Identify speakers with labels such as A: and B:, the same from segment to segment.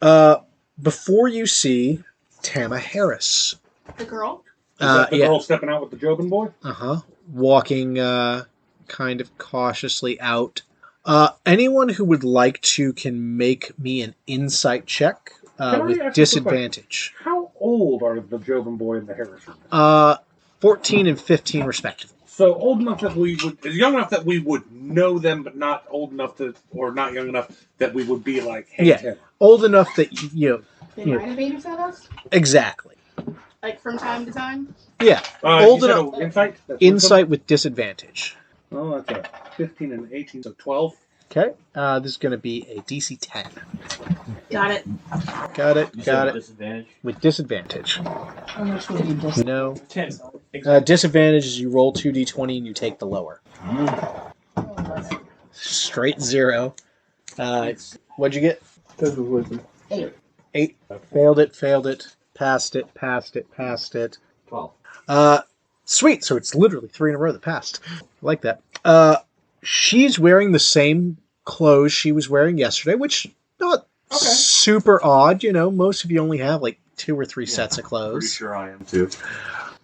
A: Uh, before you see Tama Harris,
B: The girl?
C: Is
A: uh,
C: that the
A: yeah,
C: girl stepping out with the Jobin boy?
A: uh-huh, walking uh, kind of cautiously out. Uh, anyone who would like to can make me an insight check uh,
C: Can I ask you a
A: with
C: quick
A: disadvantage.
C: How old are the Jobin boy and the Harris? woman?
A: Uh, 14 and 15, respectively.
C: So old enough that we would, young enough that we would know them, but not old enough to, or not young enough that we would be like, hey,
A: Yeah.
C: Tim.
A: Old enough that, y- you know,
B: They
A: Yeah.
B: might have babysat us?
A: exactly.
B: Like from time to time?
A: Yeah,
C: Uh,
A: Old
C: you said
A: enough-
C: a- Insight. That's
A: insight with disadvantage.
C: what- Oh, that's a fifteen and eighteen, so twelve.
A: Okay, uh, this is going to be a DC 10.
B: Got it.
A: Got it,
D: You said
A: got it.
D: Disadvantage.
A: With disadvantage. No.
D: Ten.
A: Uh, disadvantage is you roll 2d20 and you take the lower. Straight zero. Uh, what'd you get?
E: Because of wisdom.
A: Eight. Failed it, failed it, passed it, passed it, passed it.
D: Twelve.
A: Uh, sweet. So it's literally three in a row that passed. I like that. Uh, she's wearing the same clothes she was wearing yesterday, which not
B: Okay.
A: super odd. You know, most of you only have like two or three sets of
F: Pretty
A: clothes.
F: sure I am too.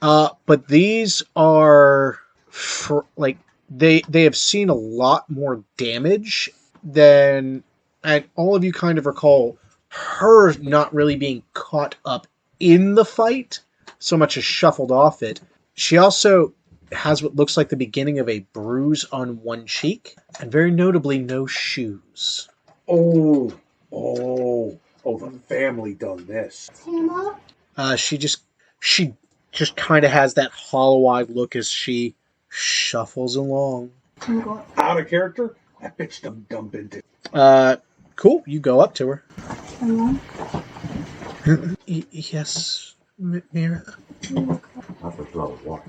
A: Uh, but these are for, like they they have seen a lot more damage than and all of you kind of recall her not really being caught up in the fight so much as shuffled off it. She also has what looks like the beginning of a bruise on one cheek and very notably no shoes.
C: Oh, oh, oh! The family done this.
B: Tama?
A: Uh, she just she just kind of has that hollow-eyed look as she shuffles along.
B: I'm going.
C: Out of character. That bitch done dumb into.
A: Uh, cool. You go up to her.
B: Hello?
A: yes, M- Mira.
F: Not for twelve. What?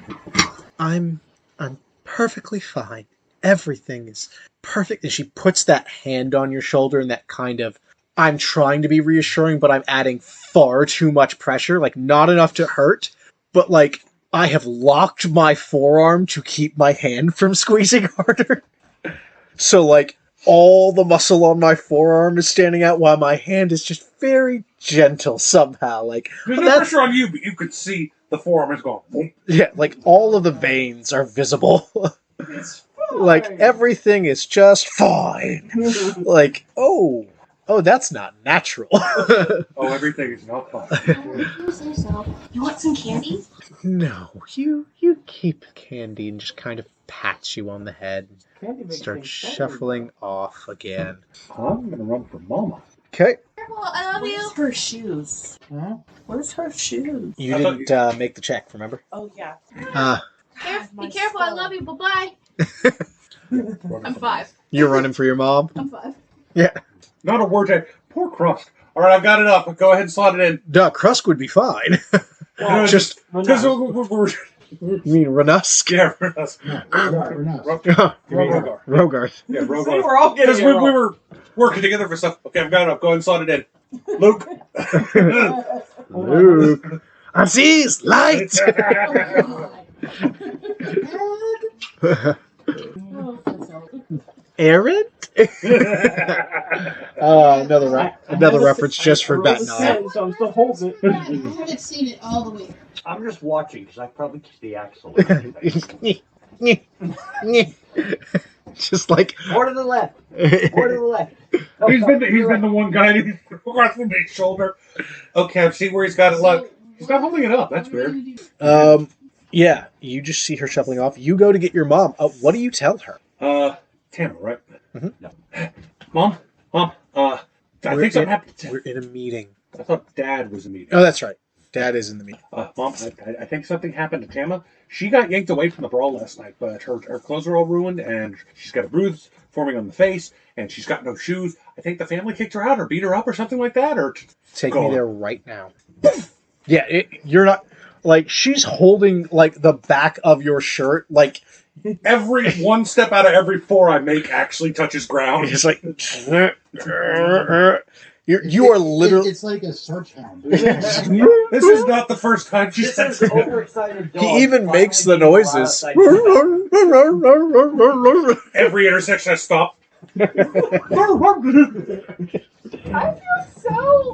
A: I'm I'm perfectly fine. Everything is perfect. And she puts that hand on your shoulder and that kind of I'm trying to be reassuring, but I'm adding far too much pressure. Like not enough to hurt, but like I have locked my forearm to keep my hand from squeezing harder. so like all the muscle on my forearm is standing out while my hand is just very gentle somehow. Like
C: There's
A: But
C: no
A: that's-
C: pressure on you, but you could see the forearm is gone. Boom.
A: Yeah, like all of the veins are visible. like everything is just fine. like, oh, oh, that's not natural.
C: Oh, everything is not fine.
B: You say so. You want some candy?
A: no, you you keep candy and just kind of pats you on the head and start shuffling off again.
C: I'm gonna run for mama.
A: Okay,
B: Careful, I love you.
G: Where's her shoes? Where's her shoes?
A: you
C: I thought
A: didn't uh, make the check, remember?
G: Oh yeah.
A: Uh,
B: Caref-
G: My
B: be careful, I
G: soul.
B: love you. Bye bye.
C: Running
B: I'm
C: for
B: five.
A: you're running for your mom.
B: I'm five.
C: mama. Not a word check. Poor crust. All right, I've got it up. Go ahead and slot it in.
A: Duh, Krusk would be fine.
C: No,
A: just
C: Because we're, we're, we're
A: you mean Renusk?
C: yeah, we're us.
A: Rogarth.
C: Rogar.
A: Rogarth.
C: Yeah,
D: We
C: Rogar.
D: were all getting
C: Because
D: it
C: we,
D: wrong.
C: we were working together for stuff. Okay, I've got it up. Go ahead and slot it in. Luke.
A: Luke. Aziz, light!
D: Oh,
A: Aaron? Uh, another re- another reference just for Bat Nine.
D: So I'm still holding it.
B: I haven't seen it all the way.
D: I'm just watching because I probably kissed the axle.
A: just like
D: More to the left. More to the left.
C: he's been the, he's been the one guy who's across the big shoulder. Okay, I see where he's got it. Look, he's not holding it up. That's weird.
A: um yeah, you just see her shuffling off. You go to get your mom. Uh, what do you tell her?
C: Uh, Tanner, right?
A: Mhm.
C: No. Mom, mom. Uh, I
A: We're
C: think something
A: in-
C: happened. to-
A: We're in a meeting.
C: I thought Dad was in the meeting.
A: Oh, that's right. Dad is in the meeting.
C: Uh, Mom, I, I- I think something happened to Tama. She got yanked away from the brawl last night, but her, her clothes are all ruined, and she's got a bruise forming on the face, and she's got no shoes. I think the family kicked her out or beat her up or something like that. Or
A: Take
C: Go
A: me
C: on.
A: there right now. yeah, it, you're not like she's holding like the back of your shirt like
C: every one step out of every four I make actually touches ground.
A: It's like you're, you are literally.
H: it's like a search hound.
C: This is not the first time she
D: This
C: says
D: is overexcited dog.
A: He even
D: finally
A: makes the
D: being allowed
A: noises.
D: outside the house.
C: every intersection I stop.
B: I feel so